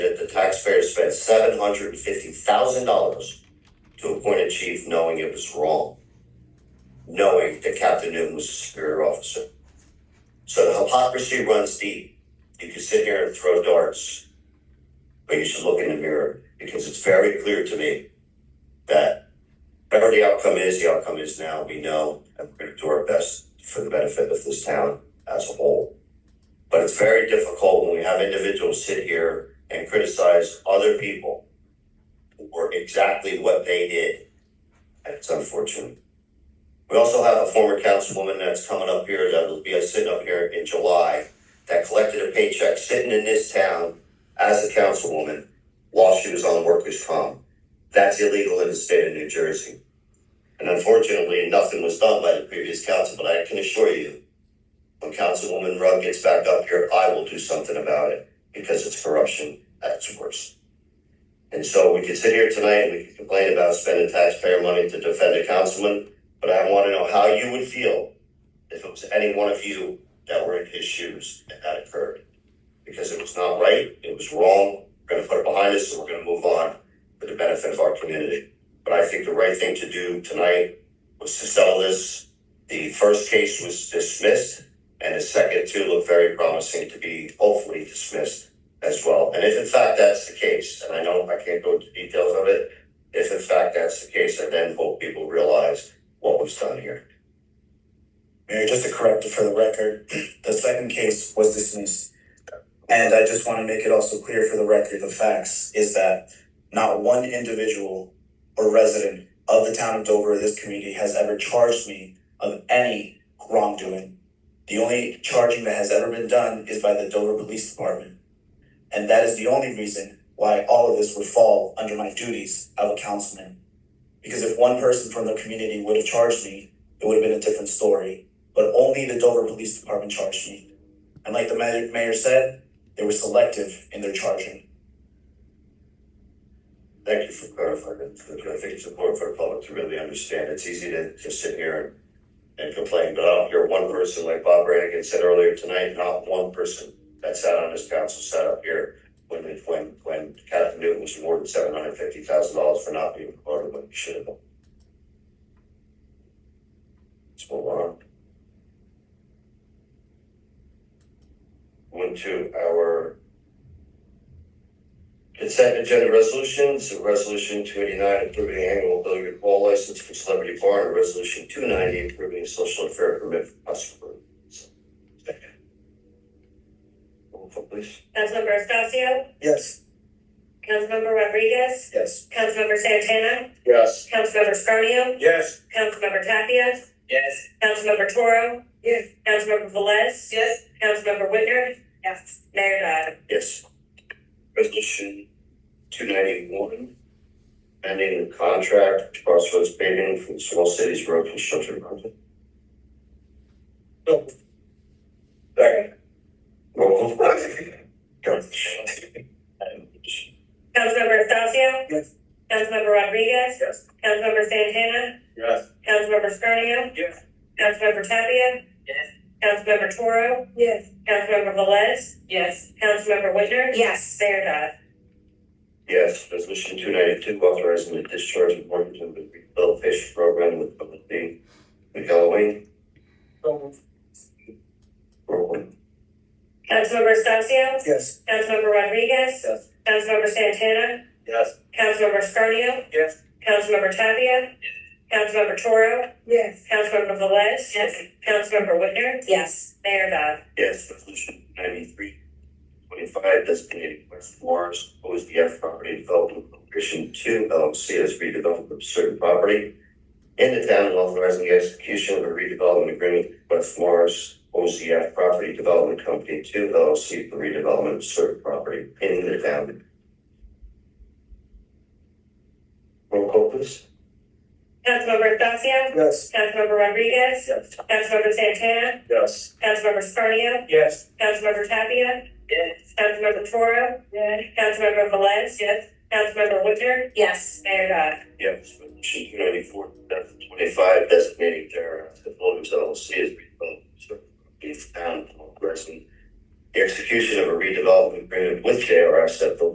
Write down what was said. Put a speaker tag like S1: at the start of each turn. S1: taxpayers spent seven hundred and fifty thousand dollars to appoint a chief knowing it was wrong, knowing that Captain Newton was a superior officer. So the hypocrisy runs deep. You can sit here and throw darts, but you should look in the mirror because it's very clear to me that whatever the outcome is, the outcome is now. We know, and we're going to do our best for the benefit of this town as a whole. But it's very difficult when we have individuals sit here and criticize other people for exactly what they did. And it's unfortunate. We also have a former councilwoman that's coming up here that will be sitting up here in July that collected a paycheck sitting in this town as a councilwoman while she was on workers' comp. That's illegal in the state of New Jersey. And unfortunately, nothing was done by the previous council, but I can assure you, when Councilwoman Rugg gets back up here, I will do something about it because it's corruption at its worst. And so we can sit here tonight and we can complain about spending taxpayer money to defend a councilman, but I want to know how you would feel if it was any one of you that were in his shoes and that occurred. Because it was not right, it was wrong, we're gonna put it behind us and we're gonna move on for the benefit of our community. But I think the right thing to do tonight was to settle this. The first case was dismissed, and the second two look very promising to be hopefully dismissed as well. And if in fact that's the case, and I know I can't go into details of it, if in fact that's the case, I then hope people realize what was done here.
S2: Mayor, just to correct it for the record, the second case was dismissed. And I just want to make it also clear for the record, the facts is that not one individual or resident of the town of Dover, or this community, has ever charged me of any wrongdoing. The only charging that has ever been done is by the Dover Police Department. And that is the only reason why all of this would fall under my duties of a councilman. Because if one person from the community would have charged me, it would have been a different story but only the Dover Police Department charged me. And like the mayor, mayor said, they were selective in their charging.
S1: Thank you for clarifying that. because I think it's important for the public to really understand. It's easy to just sit here and, and complain, but I don't hear one person like Bob Brannigan said earlier tonight, not one person that sat on this council sat up here when it, when, when Captain Newton was awarded seven hundred fifty thousand dollars for not being promoted when he should have been. Let's move on. Went to our Consent agenda resolutions, resolution two eighty-nine approving annual billiard ball license for Celebrity Bar, and resolution two ninety approving social and fair permit for Oscar. Roll call please.
S3: Councilmember Estacio,
S2: Yes.
S3: Councilmember Rodriguez,
S2: Yes.
S3: Councilmember Santana,
S1: Yes.
S3: Councilmember Scarnio,
S1: Yes.
S3: Councilmember Tapia,
S2: Yes.
S3: Councilmember Toro. Yes. Councilmember Velez.
S4: Yes.
S3: Councilmember Whitner. Yes. Mayor Dodd.
S1: Yes. Resolution two ninety-one, ending the contract with Crossroads paving for the small cities road construction project. Second. Roll call.
S3: Councilmember Estacio.
S2: Yes.
S3: Councilmember Rodriguez.
S2: Yes.
S3: Councilmember Santana,
S2: Yes.
S3: Councilmember Scarnio.
S2: Yes.
S3: Councilmember Tapia.
S4: Yes.
S3: Councilmember Toro.
S4: Yes.
S3: Councilmember Velez.
S4: Yes.
S3: Councilmember Whitner.
S4: Yes.
S3: Mayor Dodd.
S1: Yes, resolution two ninety-two, authorizing the discharge of mortgage of the rehabilitation program with public D. McElwain. Roll.
S3: Councilmember Estacio,
S2: Yes.
S3: Councilmember Rodriguez.
S2: Yes.
S3: Councilmember Santana,
S2: Yes.
S3: Councilmember Scarnio.
S2: Yes.
S3: Councilmember Tapia. Councilmember Toro.
S4: Yes.
S3: Councilmember Velez.
S4: Yes.
S3: Councilmember Whitner.
S4: Yes.
S3: Mayor Dodd.
S1: Yes, resolution ninety-three, twenty-five, designating West Morris OSDF property development corporation two LLC as redevelopment of certain property in the town and authorizing the execution of a redevelopment agreement with West Morris OCF Property Development Company two LLC for redevelopment of certain property in the town. Roll call please.
S3: Councilmember Thacia.
S2: Yes.
S3: Councilmember Rodriguez.
S2: Yes.
S3: Councilmember Santana.
S2: Yes.
S3: Councilmember Scarnio.
S2: Yes.
S3: Councilmember Tapia.
S4: Yes.
S3: Councilmember Toro.
S4: Yes.
S3: Councilmember Velez.
S4: Yes.
S3: Councilmember Whitner.
S4: Yes.
S3: Mayor Dodd.
S1: Yes, resolution two ninety-four, two thousand twenty-five, uh, designating their employees LLC as redevelopment service town progressing. The execution of a redevelopment agreement with JRS at the